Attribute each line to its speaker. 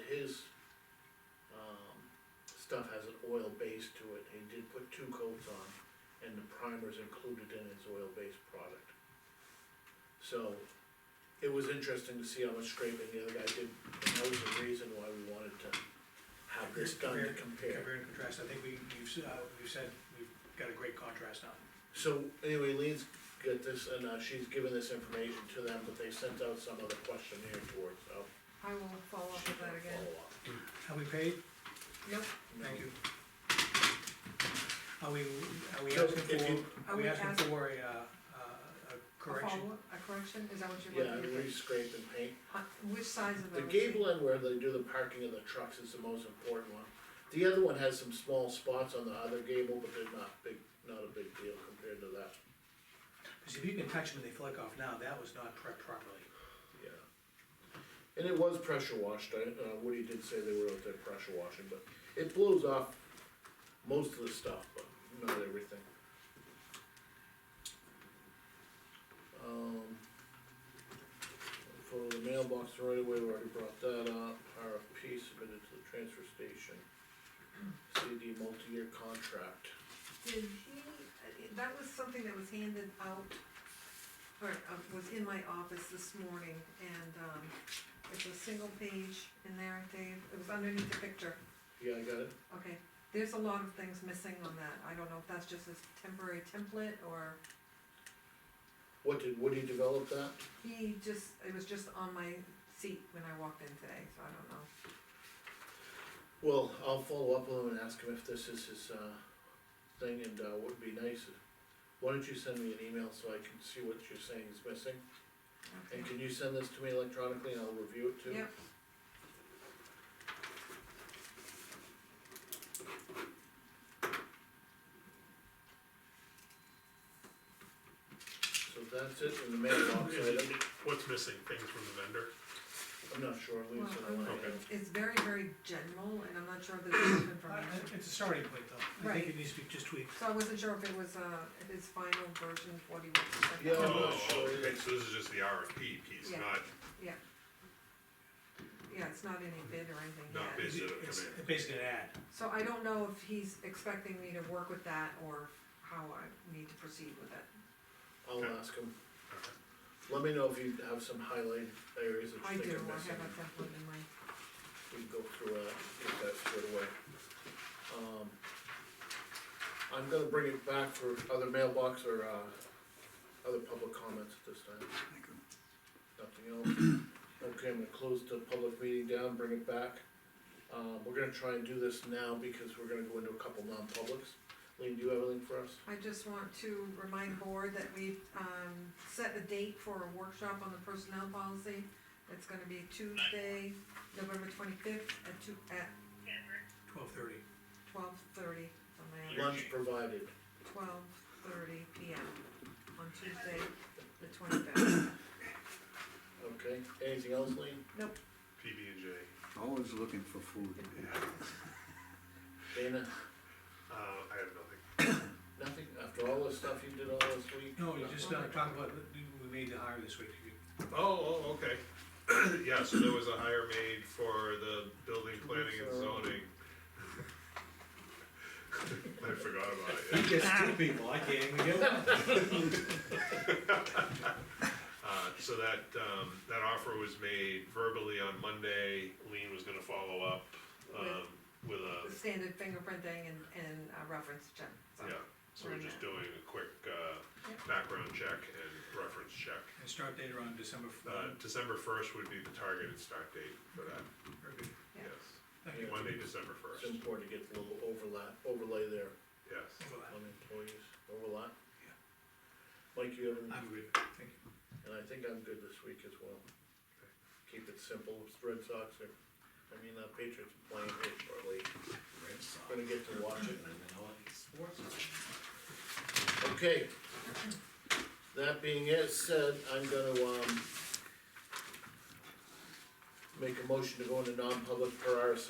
Speaker 1: um, put two coats on, and the primer's included in its oil-based product. So, it was interesting to see how much scraping the other guy did, and that was the reason why we wanted to have this done to compare.
Speaker 2: Compare and contrast, I think we, we've, s- uh, we've said, we've got a great contrast now.
Speaker 1: So anyway, Lean's got this, and uh, she's given this information to them, but they sent out some of the questionnaire towards, so.
Speaker 3: I will follow up
Speaker 1: she's
Speaker 3: with that
Speaker 1: gonna
Speaker 3: again.
Speaker 1: follow up.
Speaker 2: Have we paid?
Speaker 3: Nope,
Speaker 2: Thank
Speaker 1: No.
Speaker 2: you. Are we, are we
Speaker 1: So,
Speaker 2: asking
Speaker 1: if you-
Speaker 2: for, are we asking for a, uh, uh, a
Speaker 3: a
Speaker 2: correction?
Speaker 3: follow-up, a correction, is that what you're
Speaker 1: Yeah,
Speaker 3: looking
Speaker 1: and
Speaker 3: for?
Speaker 1: re-scrape and paint.
Speaker 3: Uh, Which size of
Speaker 1: The
Speaker 3: those?
Speaker 1: gable end where they do the parking of the trucks is the most important one. The other one has some small spots on the other gable, but they're not big, not a big deal compared to that.
Speaker 2: Cause if you can touch them and they flick off now, that was not prepped properly.
Speaker 1: Yeah. And it was pressure washed, I, uh, Woody did say they were out there pressure washing, but it blows off most of the stuff, but not everything. Um. For the mailbox right away, we already brought that up, RFP submitted to the transfer station. CD multi-year contract.
Speaker 3: Did he, uh, that was something that was handed out, or uh, was in my office this morning, and, um, it's a single page in there, Dave, it was underneath the picture,
Speaker 1: Yeah, I got it.
Speaker 3: okay. There's a lot of things missing on that, I don't know if that's just a temporary template, or
Speaker 1: What did Woody develop that?
Speaker 3: he just, it was just on my seat when I walked in today, so I don't know.
Speaker 1: Well, I'll follow up with him and ask him if this is his, uh, thing, and, uh, would be nice, if- why don't you send me an email so I can see what you're saying is missing?
Speaker 3: Okay.
Speaker 1: And can you send this to me electronically and I'll review it too?
Speaker 3: Yep.
Speaker 1: So that's it in the mailbox
Speaker 4: Is it-
Speaker 1: item,
Speaker 4: What's missing, things from the vendor?
Speaker 1: I'm not sure,
Speaker 3: Well,
Speaker 1: Lee's in
Speaker 3: I'm-
Speaker 1: line.
Speaker 4: Okay.
Speaker 3: it's very, very general, and I'm not sure if there's enough
Speaker 2: Uh,
Speaker 3: information.
Speaker 2: It's a starting point though, I think it needs to be just tweaked.
Speaker 3: So I wasn't sure if it was, uh, if his final version, of what he was.
Speaker 1: Yeah, I'm not
Speaker 4: Oh,
Speaker 1: sure
Speaker 4: okay,
Speaker 1: either.
Speaker 4: So this is just the RFP piece,
Speaker 3: Yeah.
Speaker 4: not,
Speaker 3: Yeah, it's not any bid or anything
Speaker 4: Not
Speaker 3: yet.
Speaker 4: bid. Is it a
Speaker 2: It's
Speaker 4: command?
Speaker 2: basically an ad.
Speaker 3: So I don't know if he's expecting me to work with that or how I need to proceed with it.
Speaker 1: I'll
Speaker 4: Okay.
Speaker 1: ask him,
Speaker 4: okay.
Speaker 1: let me know if you have some highlighted areas that
Speaker 3: I
Speaker 1: you think
Speaker 3: do,
Speaker 1: are
Speaker 3: I
Speaker 1: missing.
Speaker 3: have a template in mind.
Speaker 1: we can go through that, get that squared away. Um, I'm gonna bring it back for other mailbox or, uh, other public comments at this time. Nothing else. Okay, I'm gonna close the public meeting down, bring it back. Uh, we're gonna try and do this now because we're gonna go into a couple non-publics. Lean, do you have anything for us?
Speaker 3: I just want to remind board that we've, um, set a date for a workshop on the personnel policy. It's gonna be Tuesday, November twenty-fifth at two, at
Speaker 2: Twelve thirty.
Speaker 3: twelve thirty, something like
Speaker 1: Lunch provided.
Speaker 3: twelve thirty P M on Tuesday, the twenty-fifth.
Speaker 1: Okay, anything else, Lean?
Speaker 4: PB and J.
Speaker 5: Always looking for food.
Speaker 1: Dana,
Speaker 4: Uh, I have nothing.
Speaker 1: nothing? After all the stuff you did all this week?
Speaker 2: No, you just, uh, talk about, we made the hire this week,
Speaker 4: Oh, oh, okay. Yeah, so there was a hire made for the building, planning and zoning. I forgot about it, yeah.
Speaker 6: Yes, two people, I can't even get one.
Speaker 4: Uh, so that, um, that offer was made verbally on Monday, Lean was gonna follow up, um, with a,
Speaker 3: The standard fingerprinting and, and uh, reference check, so.
Speaker 4: yeah. So we're just doing a quick, uh,
Speaker 3: Yeah.
Speaker 4: background check and reference check.
Speaker 2: and start date around December, f-
Speaker 4: Uh, December first would be the targeted start date for that,
Speaker 2: very good.
Speaker 3: Yeah.
Speaker 4: yes,
Speaker 2: Thank you.
Speaker 4: Monday, December
Speaker 1: It's
Speaker 4: first,
Speaker 1: important to get a little overlap, overlay there.
Speaker 4: yes.
Speaker 2: Overlap.
Speaker 1: on employees, overlap? Mike, you have, any-
Speaker 2: I'm good, thank you.
Speaker 1: and I think I'm good this week as well. Keep it simple, it's Red Sox are, I mean, uh, Patriots playing here shortly, gonna get to watch it. Okay. That being it said, I'm gonna, um, make a motion to go into non-public per RSA